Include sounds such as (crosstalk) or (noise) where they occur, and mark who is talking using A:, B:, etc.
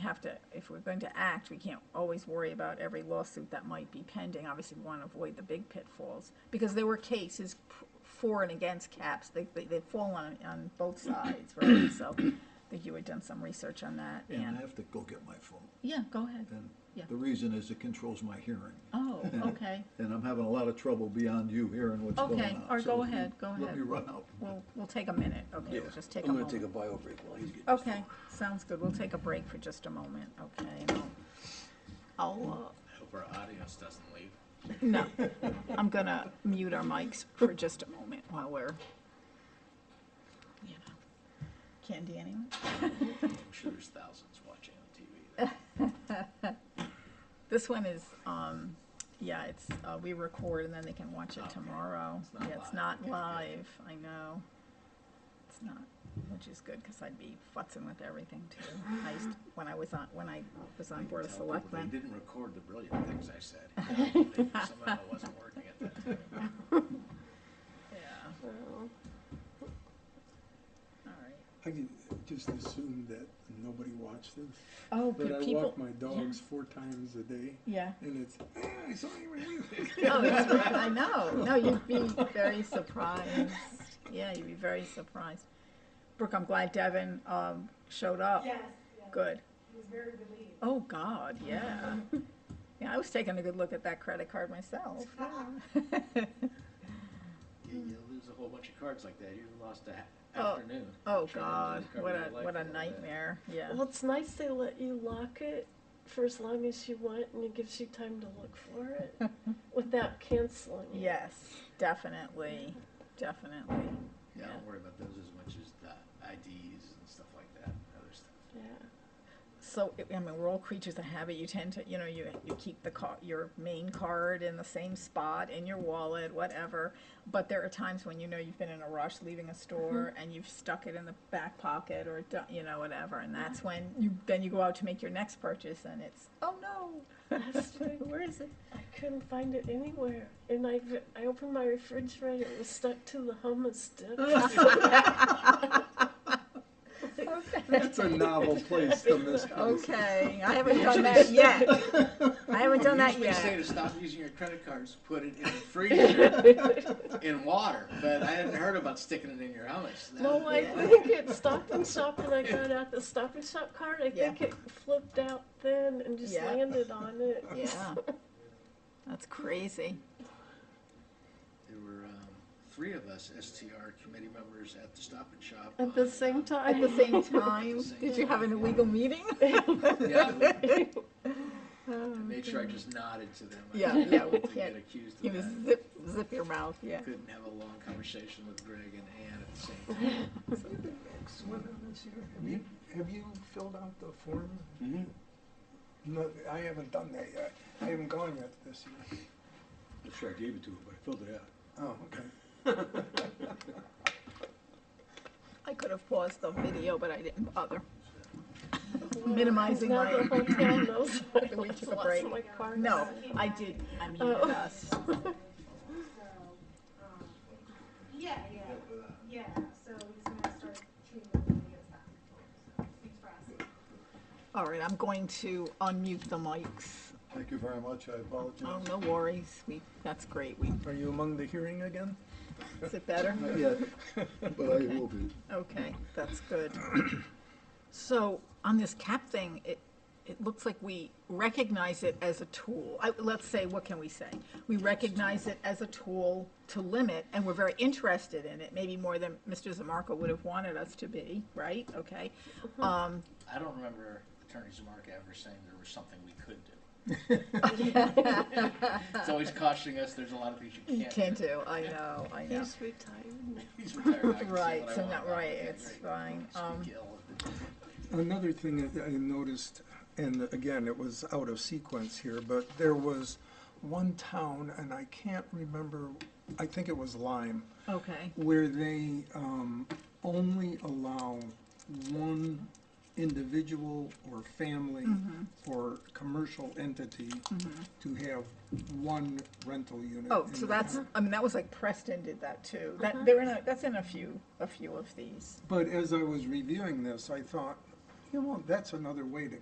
A: have to, if we're going to act, we can't always worry about every lawsuit that might be pending. Obviously, we want to avoid the big pitfalls, because there were cases p- for and against caps. They, they, they fall on, on both sides, right? So I think you had done some research on that,
B: And I
A: and,
B: have to go get my phone.
A: yeah, go ahead.
B: And
A: Yeah.
B: the reason is it controls my hearing.
A: Oh, okay,
B: And I'm having a lot of trouble beyond you hearing what's going on.
A: okay, or
B: So
A: go
B: if you
A: ahead, go
B: Let me
A: ahead.
B: run out.
A: We'll, we'll take a minute, okay, we'll just take a moment. Oh.
C: I'm gonna take a bio break while he's getting. his
A: Okay, sounds good. We'll take a break for just a moment, okay? and I'll, uh, I'll,
D: I hope our audience doesn't leave.
A: uh, no, I'm gonna mute our mics for just a moment while we're, you know, candy anyone?
D: I'm sure there's thousands watching on TV.
A: This one is, um, yeah, it's, uh, we record and then they can watch it tomorrow.
D: It's not
A: Yeah, it's
D: live.
A: not
D: Okay, good.
A: live, I know. It's not, which is good, cause I'd be futzing with everything too. I used, when I was on, when I was on Board of
D: Tell people
A: Selectmen.
D: They didn't record the brilliant things I said. (laughs) They- Somehow it wasn't working at that time.
A: Yeah,
E: Well,
A: all right.
F: I can just assume that nobody watched this.
A: Oh,
F: But
A: but
F: I
A: people.
F: walk my dogs four times a day,
A: Yeah.
F: and it's, ah, I saw you. I knew it."
A: (laughs) Oh, that's right. I know. No, you'd be very surprised. Yeah, you'd be very surprised. Brooke, I'm glad Devin um, showed up.
E: Yes, yes.
A: Good.
E: He was very relieved.
A: Oh, God, yeah. Yeah, I was taking a good look at that credit card myself. (laughs)
G: (laughs)
D: You, you lose a whole bunch of cards like that. You lost a ha-
A: Oh.
D: afternoon.
A: Oh,
D: Trying to
A: God,
D: cover
A: what
D: your
A: a,
D: life
A: what a
D: little bit.
A: nightmare. Yeah.
E: Well, it's nice they let you lock it for as long as you want, and it gives you time to look for
A: (laughs)
E: it without canceling. it.
A: Yes, definitely, definitely.
D: Yeah, I don't worry about those as much as the IDs and stuff like that, and other stuff.
E: Yeah.
A: So, I- I mean, we're all creatures of habit. You tend to, you know, you, you keep the car, your main card in the same spot, in your wallet, whatever. But there are times when you know you've been in a rush leaving a store and you've stuck it in the back pocket or, do- you know, whatever. And that's when you, then you go out to make your next purchase and it's, oh no,
E: Last
A: (laughs)
E: week,
A: where is (laughs) it?
E: I couldn't find it anywhere, and I v- I opened my refrigerator. It was stuck to the
A: (laughs)
E: hummus stick.
B: That's a novel place
A: (laughs)
B: to miss.
F: (laughs)
A: Okay, I haven't done that yet. I haven't done that
D: Usually
A: yet.
D: say to stop using your credit cards, put it in the
F: (laughs)
D: freezer in water, but I hadn't heard about sticking it in your hummus.
E: no, I think it Stop and Shop, and I got out the Stop and Shop card. I think
A: Yeah.
E: it flipped out then and just
A: Yeah.
E: landed on it.
A: (laughs) Yeah. That's crazy.
D: There were um, three of us STR committee members at the Stop and Shop.
E: At the
D: on,
E: same
D: uh,
A: At
E: time.
A: the
E: (laughs)
A: same time,
D: same
A: did you have an
D: time, yeah.
A: illegal (laughs) meeting?
D: Yeah, I made sure I just nodded to them. I
A: Oh, Yeah,
D: didn't
A: yeah, we
D: want to
A: can't-
D: Get accused
A: (laughs) You
D: of
A: know,
D: that.
A: zip, zip your mouth, yeah.
D: Couldn't have a long conversation with Greg and Ann at the
A: (laughs)
D: same time.
F: You've been ex- with them this year. Have you, have you filled out the form? Mm-hmm.
C: phone.
F: No, I haven't done that yet. I haven't gone yet this year.
C: That's where I gave it to him, but I filled it out.
F: Oh, okay.
A: I could have paused the video, but I didn't bother. Minimizing
E: Now the
A: my-
E: whole town knows I
A: (laughs) We took a
E: lost
A: break.
E: my card.
A: No, I did, I muted
E: Oh.
A: us.
G: um, Yeah, yeah, yeah, so he's gonna start treating them when he gets back. So, Thanks for asking.
A: All right, I'm going to unmute the mics.
B: Thank you very much. I
A: Oh,
B: apologize.
A: no worries, we, that's great, we,
F: Are you among the hearing again?
A: is it better?
B: Not yet,
C: (laughs)
B: but I will be.
A: Okay, that's good. So on this cap thing, it, it looks like we recognize it as a tool. I, let's say, what can we say? We recognize it as a tool to limit, and we're very interested in it, maybe more than Mr. Zamarka would have wanted us to be, right? Okay. Um,
D: I don't remember Attorney Zamarka ever saying there was something we could
A: (laughs)
D: do. It's always cautioning us, there's a lot of things you
A: you
D: can't do.
A: can't do, I know, I know.
E: He's retired.
D: (laughs) He's retired, I can say
A: Right,
D: what I
A: so
D: want
A: not
D: about
A: right,
D: it. Okay,
A: it's
D: great.
A: fine.
D: Speak
A: Um,
D: ill of the-
F: Another thing that I noticed, and again, it was out of sequence here, but there was one town, and I can't remember, I think it was Lyme,
A: Okay,
F: where they um, only allow one individual or family
A: Mm-hmm.
F: or commercial entity to have one rental unit.
A: oh,
F: in
A: so
F: the
A: that's,
F: town.
A: I mean, that was like Preston did that too. That, they're in a, that's in a few, a few of these.
F: But as I was reviewing this, I thought, you know, that's another way to